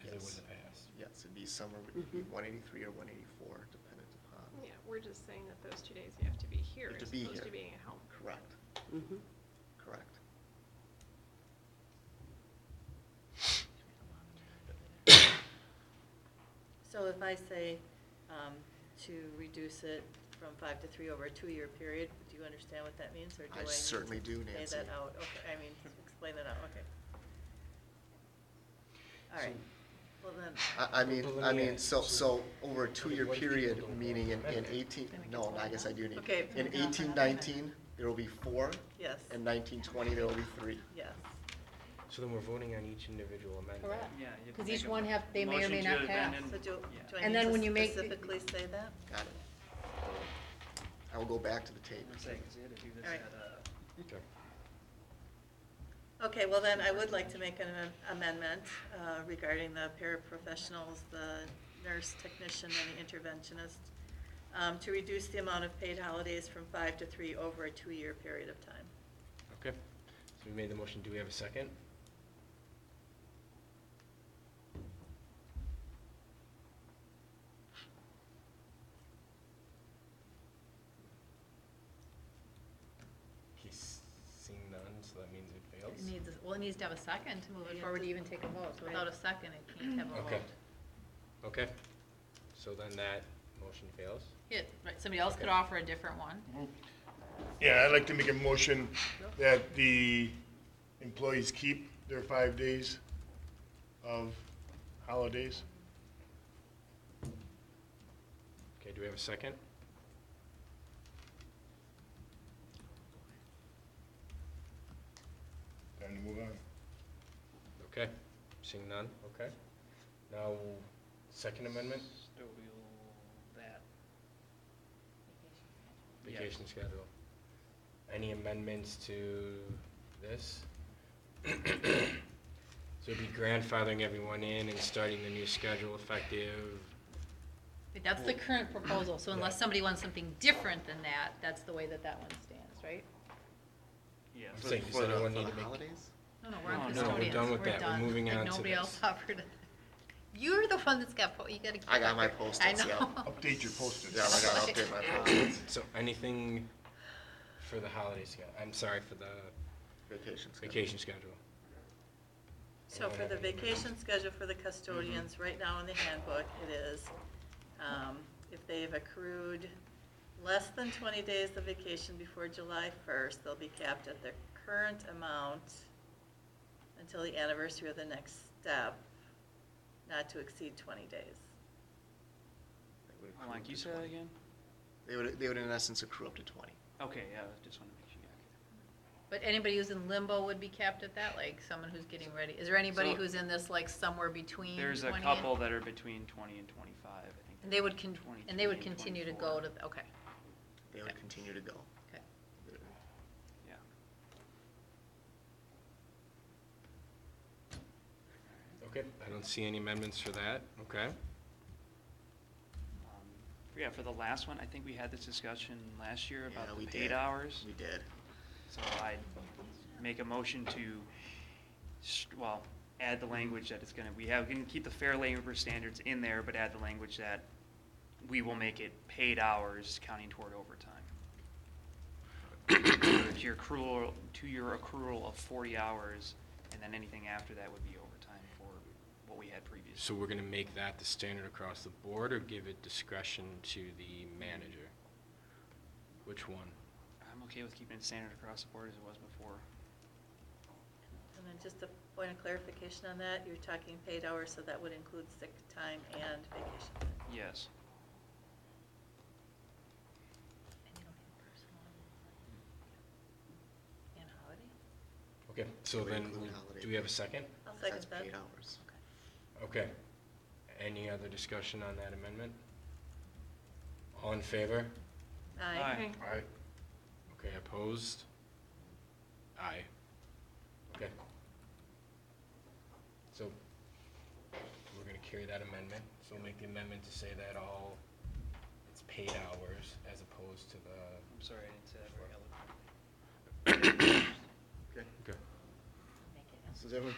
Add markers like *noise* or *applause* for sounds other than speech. they Yes. wouldn't have passed. Yes, it'd be somewhere between one eighty-three or one eighty-four, dependent upon, Yeah, we're just saying that those two days you have to be here have to as be opposed here. to being at home. correct, Mhm. correct. So if I say um, to reduce it from five to three over a two-year period, do you understand what that means, or do I? I need certainly to do, Nancy. Say that out, okay, I mean, explain that out, okay. All right, well then, I, I mean, I mean, so, so over a But two-year what if period, people don't meaning in, want to in amend it? eighteen, Then it no, gets I guess I do need. Okay. In eighteen nineteen, there will be four, yes, in nineteen twenty, there will be three. yes, So then we're voting on each individual amendment. Correct. Yeah, you have to Because make each a one have, they may or may motion to not pass. amend so do, do Yeah. I And need then to when you make the- specifically say that? Got it. I will go back to the tape. I'm saying, 'cause they had to do this All right. at, uh, Okay. Okay, well then, I would like to make an amend- amendment uh, regarding the paraprofessionals, the nurse technician and the interventionist, um, to reduce the amount of paid holidays from five to three over a two-year period of time. Okay, so we made the motion, do we have a second? He's seen none, so that means it fails. It needs, well, it needs to have a second to move You it have forward to to- even take a vote, so without a second, it can't have a vote. Okay. Okay, so then that motion fails. Yeah, right, somebody else could offer a different one. Yeah, I'd like to make a motion that the employees keep their five days of holidays. Okay, do we have a second? Time to move on. Okay, seeing none, okay. Now, second amendment, custodial, that. Yeah. vacation schedule. Any amendments to this? So it'd be grandfathering everyone in and starting the new schedule effective, But That's the current proposal, so unless Yeah. somebody wants something different than that, that's the way that that one stands, right? Yeah. I'm so- For- saying, does for the- anyone for need the to make- Holidays? No, no, we're on No, no, we're custodians, done with we're that. Oh, We're done. moving Like, on to Nobody this. else offered, it. you're the one that's got, po- you gotta. I got my post. post-its, yeah. I Oh. know. Update your post-its. Yeah, I gotta update my plans, so anything for the holiday schedule, I'm sorry, for the vacation schedule. vacation schedule. *laughs* So for the vacation schedule for the custodians, Mm-hmm. right now in the handbook, it is, um, if they have accrued less than twenty days of vacation before July first, they'll be capped at their current amount until the anniversary of the next step, not to exceed twenty days. They would Oh, accrue up Mike, to you said 20. that again? They would, they would in essence accrue up to twenty. Okay, yeah, I just want to make sure, yeah, But anybody who's in limbo would be capped at that, like someone who's getting ready, is there anybody So- who's in this like somewhere okay. between There's a 20 and- couple that are between twenty and twenty-five, I think. And they would con, and they would 23 and continue to 24. go to, the- okay, They would continue to go. okay. Yeah. Okay, I don't see any amendments for that, okay? Um, Yeah, for the last one, I think we had this discussion last year Yeah, about we the did. paid hours. We did. So I make a motion to, st- well, add the language that it's gonna, we have, we can keep the fair labor standards in there, but add the language that we will make it paid hours counting toward overtime. To your accrual, to your accrual of forty hours, and then anything after that would be overtime for what we had previously. So we're gonna make that the standard across the board or give it discretion to the manager? Which one? I'm okay with keeping it standard across the board as it was before. And then just a point of clarification on that, you're talking paid hours, so that would include sick time and vacation time. Yes. And you don't have personal And holiday? Okay, so we then, include we'll- holiday do we have a pay? second? I'll second That's that. paid hours. Okay. Any other discussion on that amendment? All in favor? Aye. Aye. Aye. Okay, opposed? Aye. Okay. So, we're gonna carry that amendment, so we'll make the amendment to say that all, it's paid hours as opposed to the. I'm sorry, I didn't say that very eloquently. Okay. Okay. So is everyone